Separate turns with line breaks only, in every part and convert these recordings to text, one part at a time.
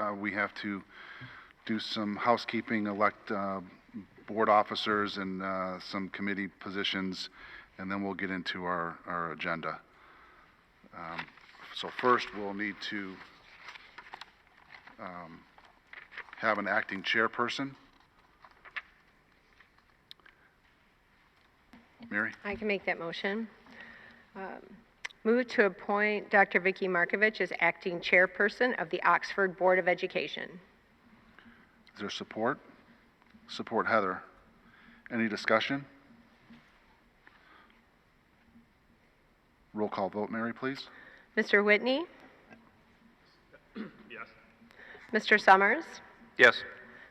Uh, we have to do some housekeeping, elect uh, board officers and uh, some committee positions, and then we'll get into our, our agenda. Um, So first, we'll need to um, have an acting chairperson. Mary?
I can make that motion. Um, Move to appoint Dr. Vicky Markovich as acting chairperson of the Oxford Board of Education.
Is there support? Support Heather. Any discussion? Roll call vote, Mary, please.
Mr. Whitney?
Yes.
Mr. Summers?
Yes.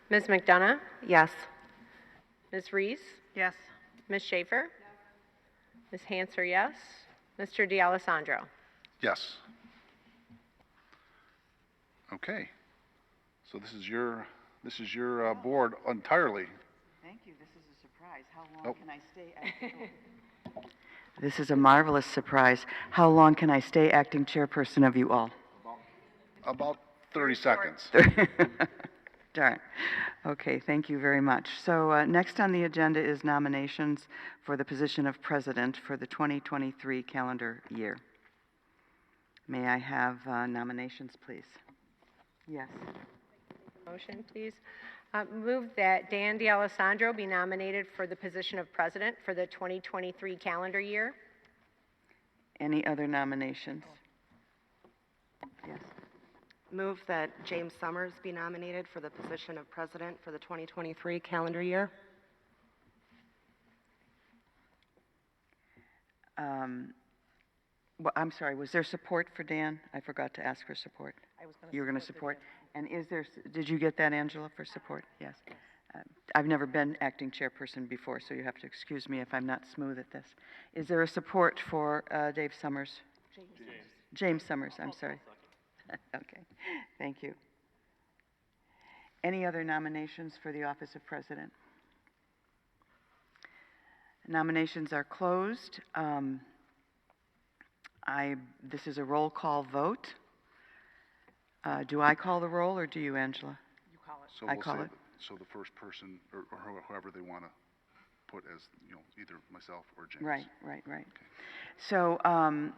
Ms. McDonough?
Yes.
Ms. Reese?
Yes.
Ms. Schaefer? Ms. Hanser, yes. Mr. D'Alessandro?
Yes. Okay. So this is your, this is your uh, board entirely.
Thank you, this is a surprise. How
Oh.
long can I stay? acting- oh. This is a marvelous surprise. How long can I stay acting chairperson of you all?
About 30 seconds.
Darn. Okay, thank you very much. So uh, next on the agenda is nominations for the position of president for the 2023 calendar year. May I have uh, nominations, please? Yes.
Motion, please. Uh, Move that Dan D'Alessandro be nominated for the position of president for the 2023 calendar year.
Any other nominations? Yes.
Move that James Summers be nominated for the position of president for the 2023 calendar year.
Um, Well, I'm sorry, was there support for Dan? I forgot to ask for support. I was going to. You were going to support? And is there, s- did you get that, Angela, for support? Yes. Uh, I've never been acting chairperson before, so you have to excuse me if I'm not smooth at this. Is there a support for uh, Dave Summers? James. James Summers, I'm sorry. Okay, thank you. Any other nominations for the office of president? Nominations are closed. Um, I, this is a roll call vote. Uh, Do I call the roll, or do you, Angela?
So
I
we'll
call
say-
it.
So the first person, or or who- whoever they want to put as, you know, either myself or James.
Right, right, right. So um,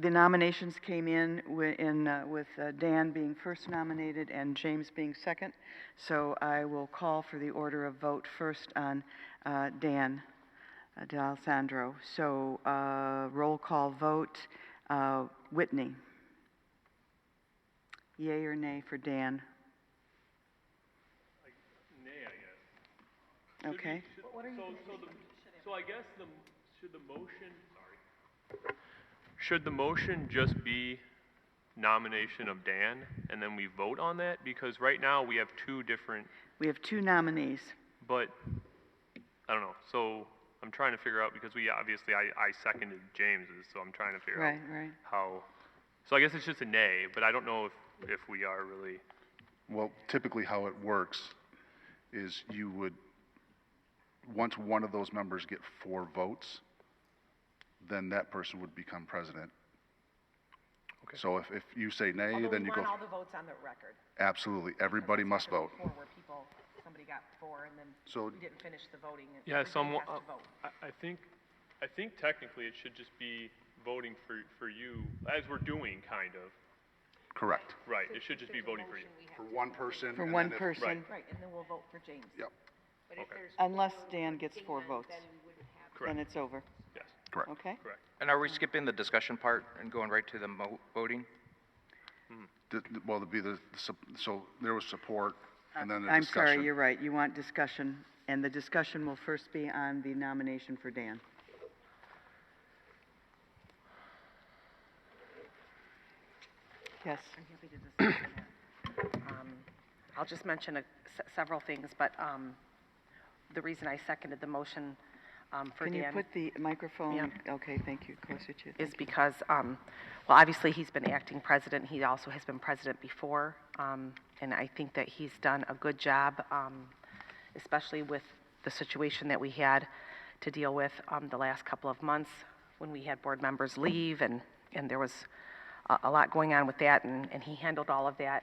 the nominations came in wi- in, uh, with uh, Dan being first nominated and James being second. So I will call for the order of vote first on uh, Dan uh, D'Alessandro. So uh, roll call vote, uh, Whitney. Yea or nay for Dan? Nay, I guess. Okay.
So I guess the, should the motion, sorry. Should the motion just be nomination of Dan and then we vote on that? Because right now we have two different,
We have two nominees.
but, I don't know, so I'm trying to figure out, because we, obviously, I, I seconded James's, so I'm trying to figure out
Right, right.
how. So I guess it's just a nay, but I don't know if, if we are really,
Well, typically how it works is you would, once one of those members get four votes, then that person would become president.
Okay.
So if, if you say nay,
Although
then
we
you go,
want all the votes on the record.
absolutely, everybody must vote.
Four where people, somebody got four and then
So-
we didn't finish the voting. and
Yeah,
everybody
someone, uh,
has to vote.
I, I think, I think technically it should just be voting for, for you, as we're doing, kind of.
Correct.
Right, it should just be voting for you.
For one person.
For
and
one
then if-
person,
Right, and then we'll vote for James.
Yep,
unless Dan gets four votes, then
Correct,
it's over,
yes,
correct.
okay?
correct.
And are we skipping the discussion part and going right to the mo- voting?
Th- th- Well, it'd be the, the sup- so there was support and then the
I'm sorry,
discussion.
you're right, you want discussion, and the discussion will first be on the nomination for Dan. Yes,
I'm happy to discuss that. Um,
I'll just mention a- se- several things, but um, the reason I seconded the motion um, for
can you
Dan
put the microphone, okay, thank you, closer to you.
is because, um, well, obviously, he's been acting president. He also has been president before, um, and I think that he's done a good job, um, especially with the situation that we had to deal with um, the last couple of months when we had board members leave, and, and there was a, a lot going on with that, and, and he handled all of that